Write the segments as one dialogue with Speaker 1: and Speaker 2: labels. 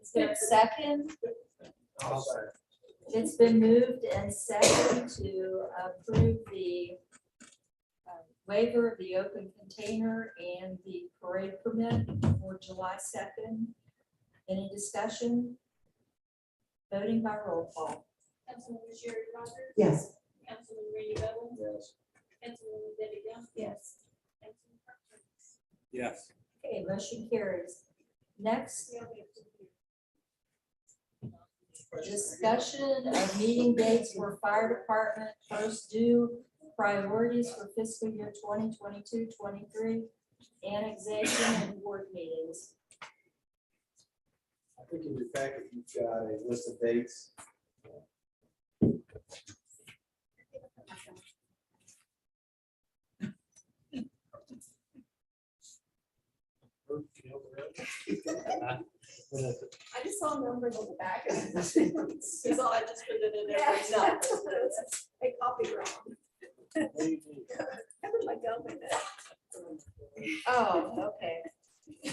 Speaker 1: Is there a second?
Speaker 2: I'll second.
Speaker 1: It's been moved and seconded to approve the uh, waiver of the open container and the parade permit for July second. Any discussion? Voting by roll call.
Speaker 3: Councilwoman Sherry Rogers?
Speaker 4: Yes.
Speaker 3: Councilman Randy Bowen?
Speaker 2: Yes.
Speaker 3: Councilwoman Debbie Gump?
Speaker 1: Yes.
Speaker 3: Councilman Park Thomas?
Speaker 2: Yes.
Speaker 1: Okay, motion carries. Next, discussion of meeting dates for fire department first due priorities for fiscal year 2022-23 annexation and board meetings.
Speaker 2: I think in your packet, you've got a list of dates.
Speaker 3: I just saw numbers on the back. That's all I just put it in there.
Speaker 1: Yeah.
Speaker 3: No, I copied wrong. I put my gum in it.
Speaker 1: Oh, okay.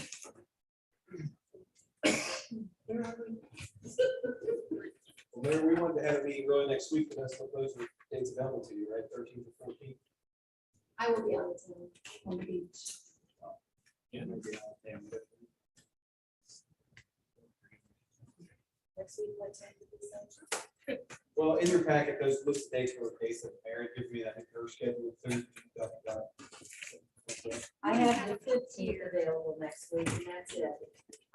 Speaker 2: Remember, we wanted to have a meeting really next week, but that's what those are dates available to you, right, thirteenth or fourteenth?
Speaker 3: I will be on the team.
Speaker 1: Next week, what time do we start?
Speaker 2: Well, in your packet, those list of dates were dates that Mary gave me, I think her schedule. through, uh, uh, okay.
Speaker 1: I have the fifteenth available next week, and that's it.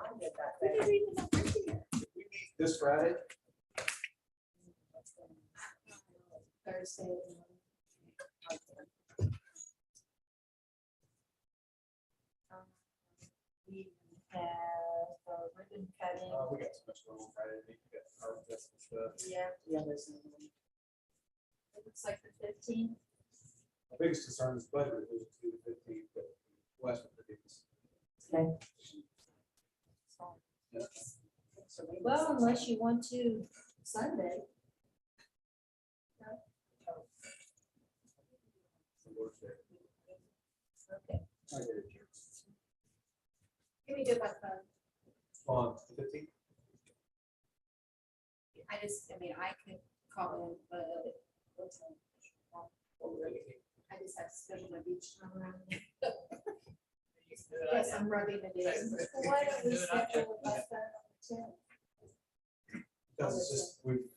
Speaker 1: I'll get that back.
Speaker 2: We meet This Friday,
Speaker 1: Thursday. um, We have a ribbon cutting,
Speaker 2: uh, we got so much going on Friday, we got our festival stuff.
Speaker 1: yeah. Yeah, there's. It looks like the fifteenth,
Speaker 2: My biggest concern is budget, revision to the fifteenth, but West Virginia's.
Speaker 1: so,
Speaker 2: Yeah.
Speaker 1: well, unless you want to Sunday.
Speaker 2: So we're there.
Speaker 1: Okay,
Speaker 2: I get it.
Speaker 3: Can we do it by phone?
Speaker 2: On the fifteenth,
Speaker 3: I just, I mean, I could call in, but what time?
Speaker 2: or the eighteenth,
Speaker 3: I just have to schedule my beach time around. Yes, I'm rubbing it in.
Speaker 1: why don't we schedule it by Sunday?
Speaker 2: because it's just, we've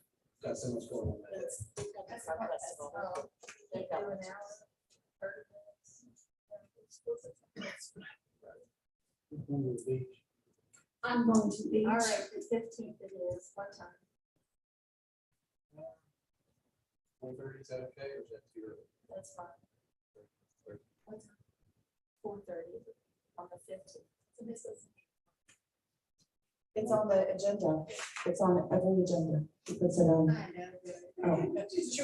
Speaker 2: got so much going on that day.
Speaker 3: That's not possible.
Speaker 1: Take that one out.
Speaker 3: I'm going to be.
Speaker 1: All right, the fifteenth it is, what time?
Speaker 2: One thirty, is that okay, or is that too early?
Speaker 1: That's fine. Four thirty on the fifteenth.
Speaker 4: It's on the agenda. It's on every agenda. um, oh. She puts it on.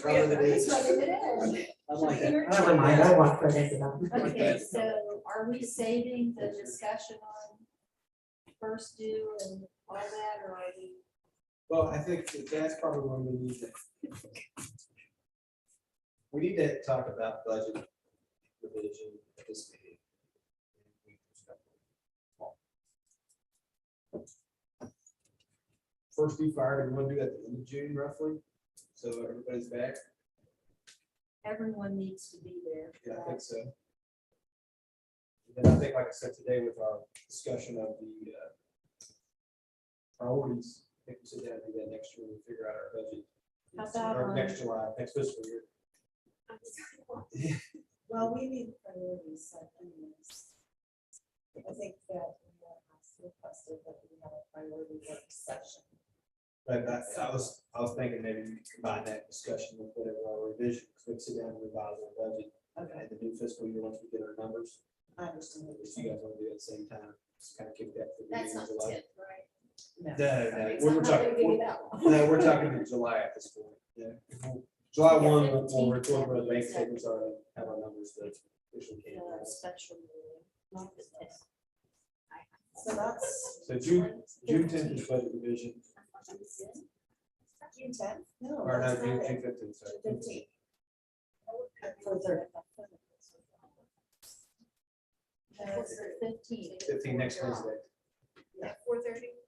Speaker 2: Rather than eight.
Speaker 5: I'm like that.
Speaker 4: Never mind, I want credit for that.
Speaker 1: Okay, so are we saving the discussion on first due and all that, or are we?
Speaker 2: Well, I think that that's probably when we need to. We need to talk about budget revision at this meeting. First due fire, we want to do that at the end of June roughly, so everybody's back,
Speaker 1: Everyone needs to be there.
Speaker 2: yeah, I think so. And I think, like I said today with our discussion of the uh, priorities, I think we sit down and do that next year, we figure out our budget.
Speaker 1: How about um,
Speaker 2: Or
Speaker 1: on-
Speaker 2: next July, next fiscal year.
Speaker 4: Well, we need priorities set anyways. I think that we have requested that we have a priority work session.
Speaker 2: But that, I was, I was thinking maybe we could combine that discussion with whatever our revision, because we sit down and revise our budget. Okay. The new fiscal year, once we get our numbers,
Speaker 4: I understand. what you're
Speaker 2: if you
Speaker 4: saying.
Speaker 2: guys want to do it at the same time, just kind of kick that. to the
Speaker 3: That's
Speaker 2: beginning
Speaker 3: not
Speaker 2: of
Speaker 3: the
Speaker 2: July.
Speaker 3: tip, right?
Speaker 4: No.
Speaker 2: No, no,
Speaker 3: Right,
Speaker 2: no,
Speaker 3: so
Speaker 2: we
Speaker 3: I'm
Speaker 2: we're
Speaker 3: not gonna
Speaker 2: talking,
Speaker 3: give you
Speaker 2: we're-
Speaker 3: that one.
Speaker 2: no, we're talking in July at this point, yeah. July one, we'll- we'll
Speaker 1: 15th.
Speaker 2: report where the bank statements are, and have our numbers that officially came
Speaker 1: uh,
Speaker 2: out.
Speaker 1: Special meeting. not the 10th.
Speaker 4: So that's
Speaker 2: So June, June tenth is budget revision,
Speaker 4: June tenth? No.
Speaker 2: or no,
Speaker 4: that's
Speaker 2: June
Speaker 4: not it.
Speaker 2: June fifteenth, sorry.
Speaker 4: June Fifteenth. For the-
Speaker 1: No, it's the fifteenth.
Speaker 2: Fifteen next Wednesday.
Speaker 3: At four thirty?